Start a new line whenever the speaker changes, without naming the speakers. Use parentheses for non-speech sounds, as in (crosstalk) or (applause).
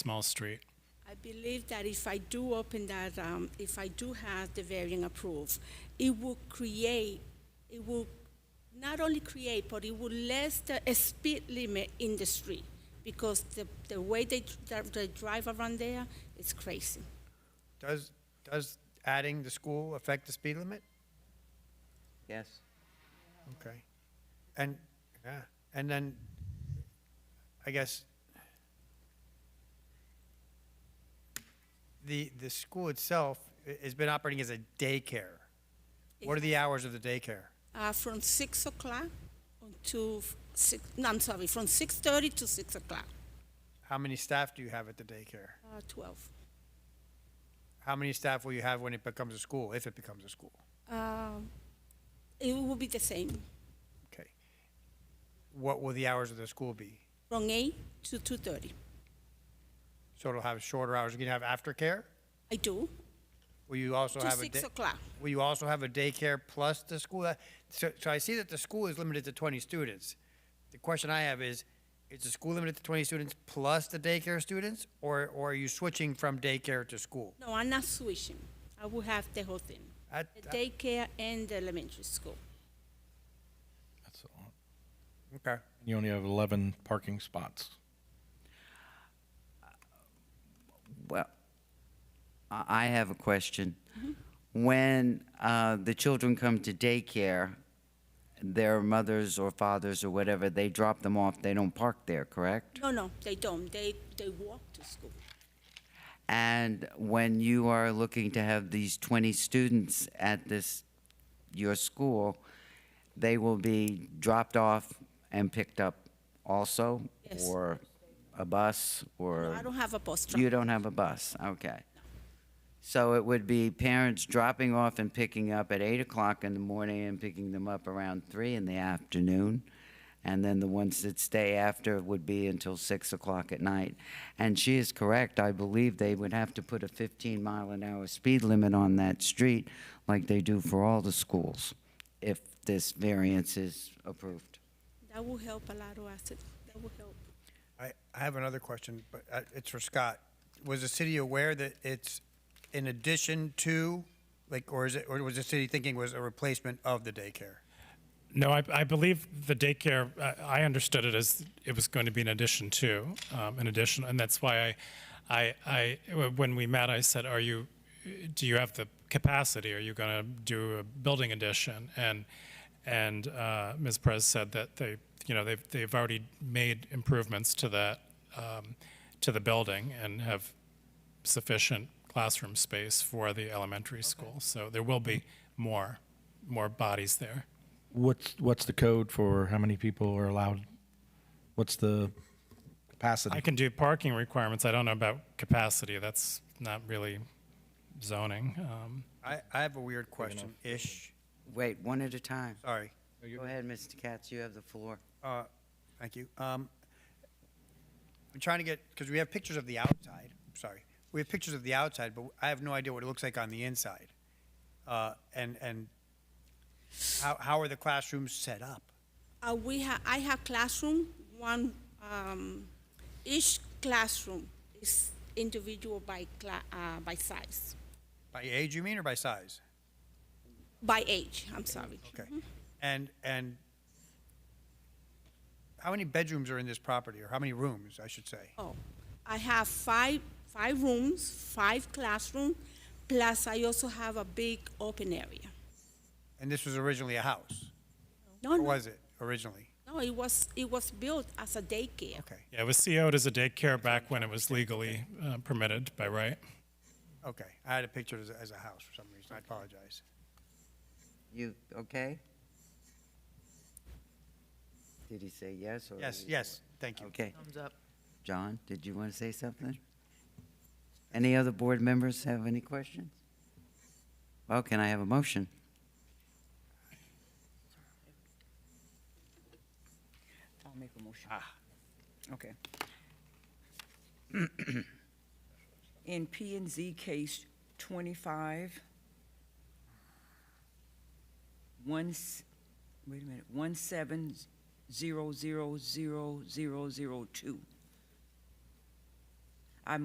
small street.
I believe that if I do open that, um, if I do have the variant approved, it will create, it will not only create, but it will less the a speed limit in the street because the, the way they, dr- they drive around there is crazy.
Does, does adding the school affect the speed limit?
Yes.
Okay. And, yeah, and then, I guess, the, the school itself i- has been operating as a daycare. What are the hours of the daycare?
Uh, from six o'clock to f- six, no, I'm sorry, from six thirty to six o'clock,
How many staff do you have at the daycare?
uh, twelve.
How many staff will you have when it becomes a school, if it becomes a school?
Um, it will be the same,
Okay. What will the hours of the school be?
from eight to two thirty.
So it'll have shorter hours. You're gonna have aftercare?
I do,
Will you also
to
have a?
six
da-
o'clock.
Will you also have a daycare plus the school? That- So, so I see that the school is limited to twenty students. The question I have is, is the school limited to twenty students plus the daycare students? Or, or are you switching from daycare to school?
No, I'm not switching. I will have the whole thing,
I-
the daycare and the elementary school.
That's all.
Okay.
You only have 11 parking spots.
Well, I I have a question.
Mm-hmm.
When uh, the children come to daycare, their mothers or fathers or whatever, they drop them off, they don't park there, correct?
No, no, they don't. They, they walk to school.
And when you are looking to have these 20 students at this, your school, they will be dropped off and picked up also?
Yes.
Or a bus, or?
I don't have a bus driver.
You don't have a bus, okay. So it would be parents dropping off and picking up at eight o'clock in the morning and picking them up around three in the afternoon. And then the ones that stay after would be until six o'clock at night. And she is correct, I believe they would have to put a fifteen mile an hour speed limit on that street like they do for all the schools if this variance is approved.
That will help a lot of us. That will help.
I, I have another question, but uh, it's for Scott. Was the city aware that it's in addition to, like, or is it, or was the city thinking was a replacement of the daycare?
No, I, I believe the daycare, uh, I, I understood it as it was going to be an addition to, um, an addition, and that's why I, I, I, when we met, I said, are you, do you have the capacity? Are you going to do a building addition? And, and, uh, Ms. Perez said that they, you know, they've, they've already made improvements to that, um, to the building and have sufficient classroom space for the elementary school. So there will be more, more bodies there.
What's what's the code for how many people are allowed? What's the capacity?
I can do parking requirements. I don't know about capacity. That's not really zoning. Um,
I, I have a weird question-ish.
Wait, one at a time.
Sorry.
Go ahead, Mr. Katz, you have the floor.
Uh, Thank you. Um, I'm trying to get, because we have pictures of the outside, sorry. We have pictures of the outside, but I have no idea what it looks like on the inside. Uh, And, and how, how are the classrooms set up?
Uh, we ha- I have classroom, one, um, each classroom is individual by cla- uh, by size,
By age, you mean, or by size?
by age, I'm sorry.
Okay. And, and how many bedrooms are in this property, or how many rooms, I should say?
Oh, I have five, five rooms, five classroom, plus I also have a big open area.
And this was originally a house,
No,
or
no,
was it originally?
no, it was, it was built as a daycare.
Okay,
yeah, it was CO'd as a daycare back when it was legally uh, permitted by right.
okay. I had a picture as, a- as a house for some reason, I apologize.
You, okay? Did he say yes or?
Yes, yes, thank you.
Okay. Thumbs up. John, did you want to say something? Any other board members have any questions? Well, can I have a motion?
I'll make a motion. Okay. (clears throat) In P and Z case twenty-five, one, s- wait a minute, one seven zero zero zero zero zero two.